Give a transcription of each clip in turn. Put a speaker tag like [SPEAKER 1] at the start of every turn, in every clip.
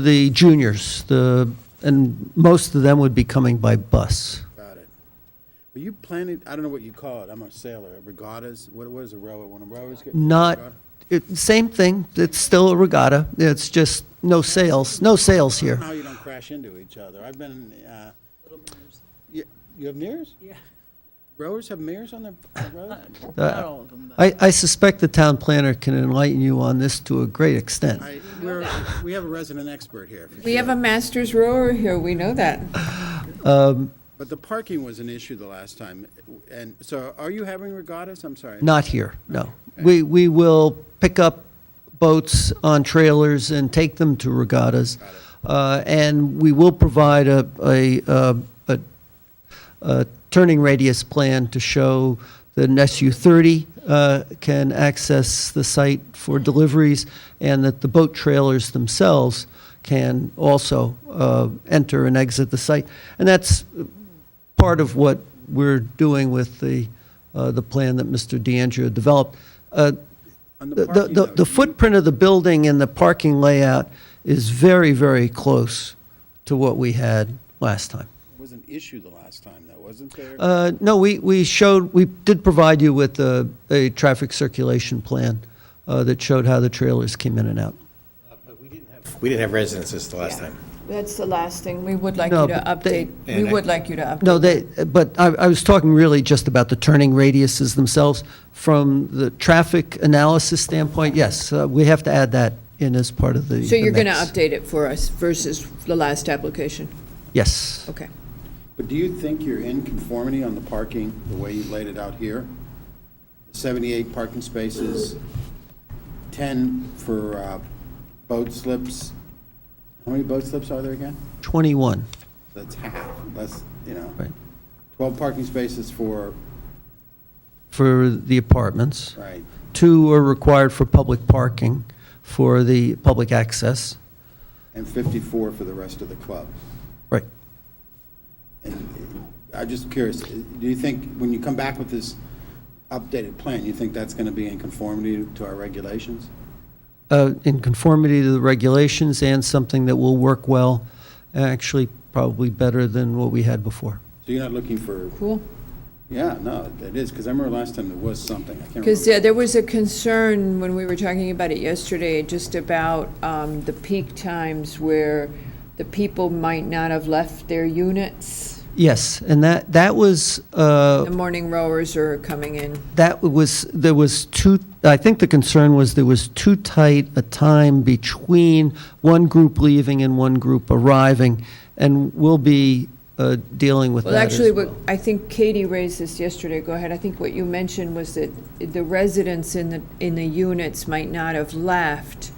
[SPEAKER 1] the juniors, the, and most of them would be coming by bus.
[SPEAKER 2] Got it. Were you planning, I don't know what you call it, I'm a sailor, regattas, what what is a rower, when a rower's get?
[SPEAKER 1] Not, it- same thing, it's still a regatta, it's just no sails, no sails
[SPEAKER 2] I
[SPEAKER 1] here.
[SPEAKER 2] don't know how you don't crash into each other, I've been, uh, you, you have mirrors?
[SPEAKER 3] Yeah,
[SPEAKER 2] Rowers have mirrors on their road?
[SPEAKER 3] not all of them, but
[SPEAKER 1] I, I suspect the town planner can enlighten you on this to a great extent.
[SPEAKER 2] I, we're, we have a resident expert here, for
[SPEAKER 4] We
[SPEAKER 2] sure.
[SPEAKER 4] have a master's rower here, we know that.
[SPEAKER 2] but the parking was an issue the last time, and, so are you having regattas, I'm sorry?
[SPEAKER 1] Not here, no. We, we will pick up boats on trailers and take them to regattas. Uh, And we will provide a, a, uh, a, a turning radius plan to show that an SU-30 uh, can access the site for deliveries and that the boat trailers themselves can also uh, enter and exit the site. And that's part of what we're doing with the, uh, the plan that Mr. DeAndrea developed. Uh,
[SPEAKER 2] On
[SPEAKER 1] The,
[SPEAKER 2] the parking,
[SPEAKER 1] the, the
[SPEAKER 2] though,
[SPEAKER 1] footprint of the building and the parking layout is very, very close to what we had last time.
[SPEAKER 2] was an issue the last time, though, wasn't there?
[SPEAKER 1] Uh, No, we, we showed, we did provide you with a, a traffic circulation plan uh, that showed how the trailers came in and out.
[SPEAKER 5] We didn't have residences the last time.
[SPEAKER 4] That's the last thing, we would like
[SPEAKER 1] No,
[SPEAKER 4] you to
[SPEAKER 1] but they-
[SPEAKER 4] update, we
[SPEAKER 5] And I-
[SPEAKER 4] would like you to update.
[SPEAKER 1] No, they, but I, I was talking really just about the turning radiuses themselves. From the traffic analysis standpoint, yes, uh, we have to add that in as part of the.
[SPEAKER 4] So you're
[SPEAKER 1] the
[SPEAKER 4] going to
[SPEAKER 1] mix.
[SPEAKER 4] update it for us versus the last application?
[SPEAKER 1] Yes.
[SPEAKER 4] Okay.
[SPEAKER 2] But do you think you're in conformity on the parking, the way you laid it out here? 78 parking spaces, 10 for uh, boat slips. How many boat slips are there again?
[SPEAKER 1] 21,
[SPEAKER 2] That's half, less, you know.
[SPEAKER 1] right,
[SPEAKER 2] 12 parking spaces for,
[SPEAKER 1] for the apartments.
[SPEAKER 2] right,
[SPEAKER 1] Two are required for public parking, for the public access.
[SPEAKER 2] and 54 for the rest of the club.
[SPEAKER 1] Right.
[SPEAKER 2] And uh, I'm just curious, do you think, when you come back with this updated plan, you think that's going to be in conformity to our regulations?
[SPEAKER 1] uh, in conformity to the regulations and something that will work well, actually probably better than what we had before.
[SPEAKER 2] So you're not looking for
[SPEAKER 4] Cool.
[SPEAKER 2] Yeah, no, it is, because I remember last time there was something, I can't remember.
[SPEAKER 4] Because there was a concern when we were talking about it yesterday, just about um, the peak times where the people might not have left their units.
[SPEAKER 1] Yes, and that, that was, uh,
[SPEAKER 4] The morning rowers are coming in.
[SPEAKER 1] that was, there was too, I think the concern was there was too tight a time between one group leaving and one group arriving, and we'll be uh, dealing with that
[SPEAKER 4] Well,
[SPEAKER 1] as
[SPEAKER 4] actually, what,
[SPEAKER 1] well.
[SPEAKER 4] I think Katie raised this yesterday, go ahead, I think what you mentioned was that the residents in the, in the units might not have left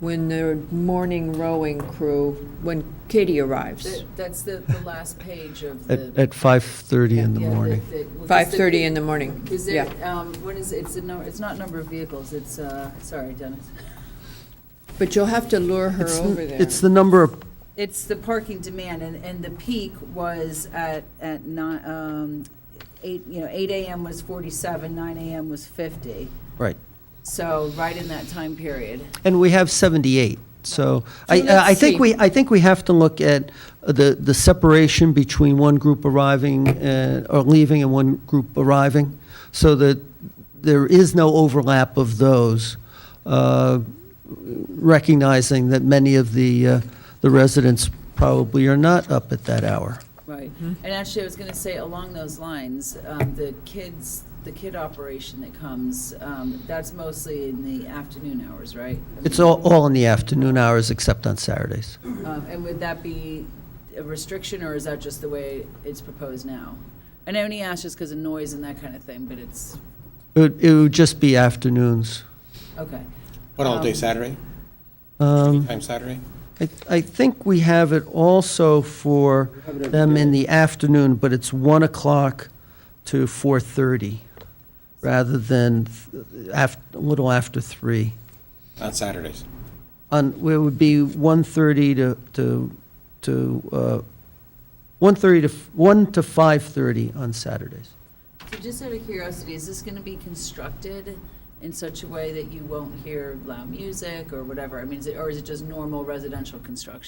[SPEAKER 4] when the morning rowing crew, when Katie arrives,
[SPEAKER 3] that- that's the, the last page of
[SPEAKER 1] At,
[SPEAKER 3] the.
[SPEAKER 1] at 5:30 in the
[SPEAKER 3] yeah,
[SPEAKER 1] morning.
[SPEAKER 3] the- the- well, 'cause the-
[SPEAKER 4] 5:30 in the morning,
[SPEAKER 3] Is there,
[SPEAKER 4] yeah.
[SPEAKER 3] um, what is, it? it's a, no- it's not number of vehicles, it's, uh, sorry, Dennis.
[SPEAKER 4] But you'll have to lure her
[SPEAKER 1] It's-
[SPEAKER 4] over there.
[SPEAKER 1] It's the number of
[SPEAKER 3] It's the parking demand, and, and the peak was at, at nine, um, eight, you know, eight AM was forty-seven, nine AM was fifty.
[SPEAKER 1] Right.
[SPEAKER 3] So right in that time period.
[SPEAKER 1] And we have 78, so I,
[SPEAKER 4] So let's
[SPEAKER 1] I think
[SPEAKER 4] see.
[SPEAKER 1] we, I think we have to look at the, the separation between one group arriving, uh, or leaving and one group arriving, so that there is no overlap of those, uh, recognizing that many of the, uh, the residents probably are not up at that hour.
[SPEAKER 3] Right.
[SPEAKER 4] Mm-hmm.
[SPEAKER 3] And actually, I was going to say, along those lines, um, the kids, the kid operation that comes, um, that's mostly in the afternoon hours, right? I
[SPEAKER 1] It's
[SPEAKER 3] mean,
[SPEAKER 1] all, all in the afternoon hours, except on Saturdays.
[SPEAKER 3] um, And would that be a restriction, or is that just the way it's proposed now? And I only ask just because of noise and that kind of thing, but it's,
[SPEAKER 1] It would, it would just be afternoons.
[SPEAKER 3] okay.
[SPEAKER 5] What all day
[SPEAKER 3] Um,
[SPEAKER 5] Saturday?
[SPEAKER 1] Um,
[SPEAKER 5] Time Saturday?
[SPEAKER 1] I, I think we have it also for them in the afternoon, but it's 1 o'clock to 4:30, rather than th- af, a little after 3.
[SPEAKER 5] On Saturdays.
[SPEAKER 1] On, it would be 1:30 to, to, to, uh, 1:30 to, f- 1 to 5:30 on Saturdays.
[SPEAKER 3] So just out of curiosity, is this going to be constructed in such a way that you won't hear loud music or whatever? I mean, is it, or is it just normal residential construction?